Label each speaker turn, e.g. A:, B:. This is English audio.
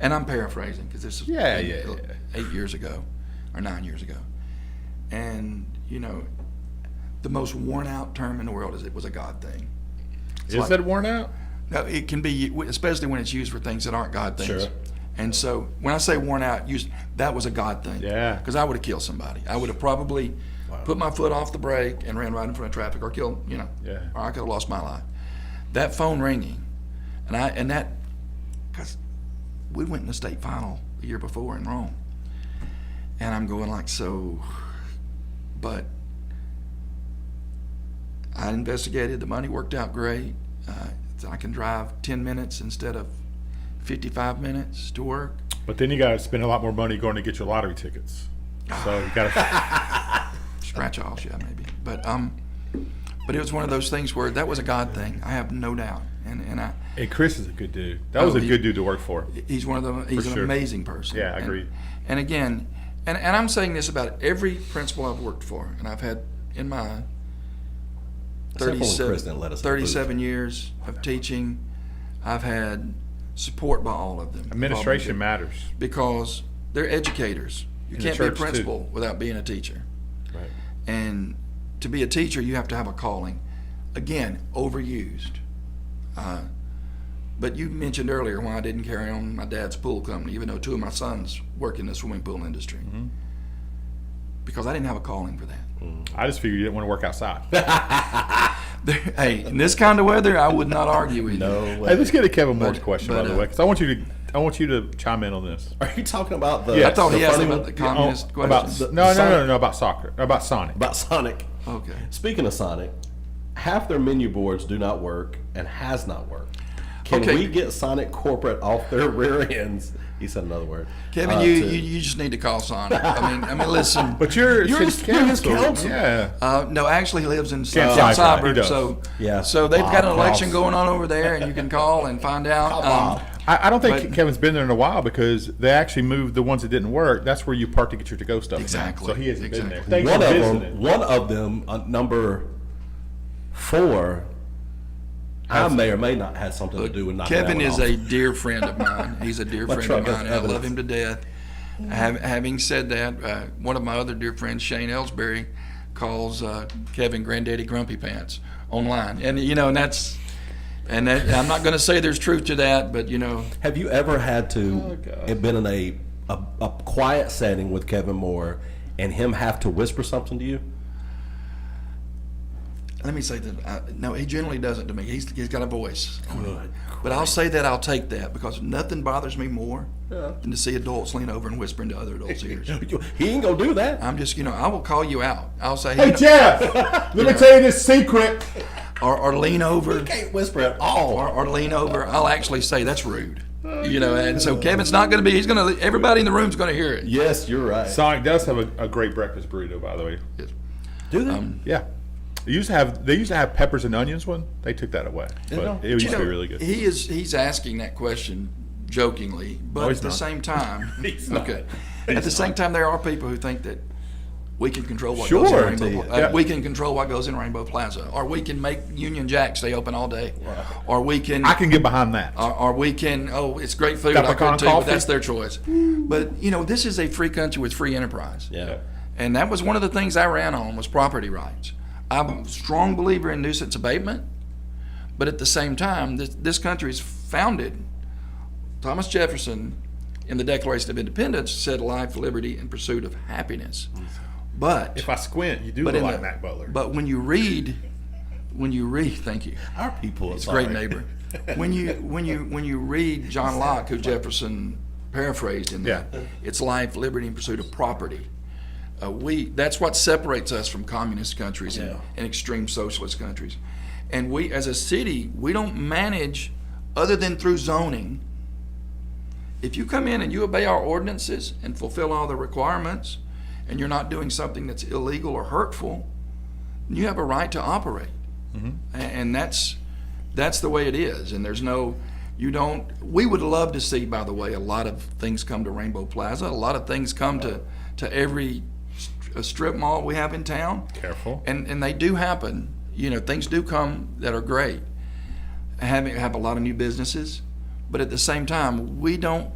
A: and I'm paraphrasing because this is
B: Yeah,
A: eight,
B: yeah, yeah.
A: eight years ago or nine years ago, and you know, the most worn out term in the world is it was a God thing.
B: Is
A: like-
B: that worn out?
A: No, it can be especially when it's used for things that aren't God things.
B: Sure.
A: And so when I say worn out, used that was a God thing.
B: Yeah.
A: Because I would have killed somebody. I would have probably put my foot off the brake and ran right in front of traffic, or killed you know,
B: Yeah.
A: or I could have lost my life. That phone ringing, and I and that because we went in the state final the year before in Rome, and I'm going like so, but I investigated. The money worked out great. Uh, I can drive 10 minutes instead of 55 minutes to work.
B: But then you got to spend a lot more money going to get your lottery tickets. So you got to.
A: Scratch offs, yeah, maybe. But um, but it was one of those things where that was a God thing. I have no doubt. And and I,
B: and Chris is a good dude. That was
A: Oh,
B: a
A: he-
B: good dude to work for.
A: he's one of the he's
B: For
A: an
B: sure.
A: amazing person.
B: Yeah, I
A: And-
B: agree.
A: And again, and and I'm saying this about every principal I've worked for, and I've had in my
C: Except for when the
A: 37
C: president let us in the booth.
A: 37 years of teaching, I've had support by all of them.
B: Administration matters.
A: because they're educators. You
B: In the
A: can't be a
B: church, too.
A: principal without being a teacher.
B: Right.
A: And to be a teacher, you have to have a calling. Again, overused. Uh, but you mentioned earlier why I didn't carry on my dad's pool company, even though two of my sons work in the swimming pool industry.
B: Mm-hmm.
A: Because I didn't have a calling for that.
B: I just figured you didn't want to work outside.
A: hey, in this kind of weather, I would not argue with you.
C: No
B: Hey,
C: way.
B: let's get a Kevin Moore's
A: But-
B: question
A: but,
B: by the
A: uh,
B: way, because I want you to I want you to chime in on this.
C: Are you talking about the?
B: Yeah.
A: I thought
C: the
A: he asked
C: funny
A: about
C: one?
A: the communist
B: Oh, about
A: questions.
B: no, no, no,
C: Sonic.
B: no, no, about soccer, about Sonic.
C: about Sonic.
A: okay.
C: Speaking of Sonic, half their menu boards do not work and has not worked. Can
A: Okay.
C: we get Sonic corporate off their rear ends? He said another word.
A: Kevin,
C: uh,
A: you,
C: to-
A: you you just need to call Sonic. I mean, I mean, listen.
B: But you're,
C: You're
B: city
C: his- you're his council.
B: Yeah.
A: Uh, no, actually he lives in uh,
B: Kansas City, right, he
A: Cyber,
B: does.
A: so
C: Yeah.
A: So they've got an
C: Bob
A: election
C: Ross.
A: going on over there, and you can call and find out. Um,
B: I, I don't think
A: But-
B: Kevin's been there in a while because they actually moved the ones that didn't work. That's where you park to get your to go stuff. now.
A: Exactly,
B: So he hasn't been there.
A: exactly.
B: Thanks
C: one
B: for
C: of
B: visiting.
C: them, one of them, uh, number four, I may or may not have something to do with knocking that
A: Kevin
C: one
A: is
C: off.
A: a dear friend of mine. He's a dear
C: My
A: friend
C: truck
A: of
C: has
A: mine. and I love
C: evidence.
A: him to death. Hav having said that, uh, one of my other dear friends, Shane Ellsbury, calls uh, Kevin Granddaddy Grumpy Pants online, and you know, and that's. And that, I'm not going to say there's truth to that, but you know,
C: Have you ever had to
B: God.
C: have been in a, a a quiet setting with Kevin Moore and him have to whisper something to you?
A: let me say that. I, no, he generally doesn't to me. He's, he's got a voice. But I'll say that I'll take that because nothing bothers me more than to see adults lean over and whisper into other adults' ears.
C: He ain't gonna do that.
A: I'm just, you know, I will call you out. I'll say, you
B: Hey
A: know,
B: Jeff, let me tell you this secret.
A: or, or lean over,
C: can't whisper at all.
A: or, or lean over. I'll actually say that's rude, you know. And so Kevin's not going to be. He's going to. Everybody in the room's going to hear it.
C: Yes, you're right.
B: Sonic does have a, a great breakfast burrito, by the way.
C: do that.
B: Yeah. They used to have they used to have peppers and onions one. They took that away.
C: know.
B: But it used
A: You
B: to
A: know,
B: be really good.
A: He is. He's asking that question jokingly, but
B: No, he's
A: at the
B: not.
A: same time,
B: He's not.
A: okay. At the same time, there are people who think that we can control what goes
B: Sure.
A: in Rainbow. Pla- uh,
B: Yeah.
A: We can control what goes in Rainbow Plaza, or we can make Union Jack stay open all day, or we can.
B: I can get behind that.
A: or, or we can oh it's great food
B: Got
A: I
B: pecan
A: could too, but
B: coffee?
A: that's their choice but you know this is a free country with free enterprise
C: Yeah.
A: and that was one of the things I ran on was property rights I'm a strong believer in nuisance abatement but at the same time this, this country is founded Thomas Jefferson in the Declaration of Independence said life liberty and pursuit of happiness but
B: if I squint, you do
A: but,
B: look
A: in
B: like
A: the-
B: Matt Butler.
A: but when you read when you read thank you
C: Our people are
A: it's a great
C: sorry.
A: neighbor. When you when you when you read John Locke, who Jefferson paraphrased in that,
B: Yeah.
A: it's life, liberty, and pursuit of property. Uh, we that's what separates us from communist countries and, and extreme socialist countries. And we, as a city, we don't manage other than through zoning. If you come in and you obey our ordinances and fulfill all the requirements, and you're not doing something that's illegal or hurtful, you have a right to operate. A- And that's that's the way it is. And there's no, you don't. We would love to see, by the way, a lot of things come to Rainbow Plaza. A lot of things come to to every st- strip mall we have in town.
B: Careful.
A: And and they do happen. You know, things do come that are great. Having have a lot of new businesses, but at the same time, we don't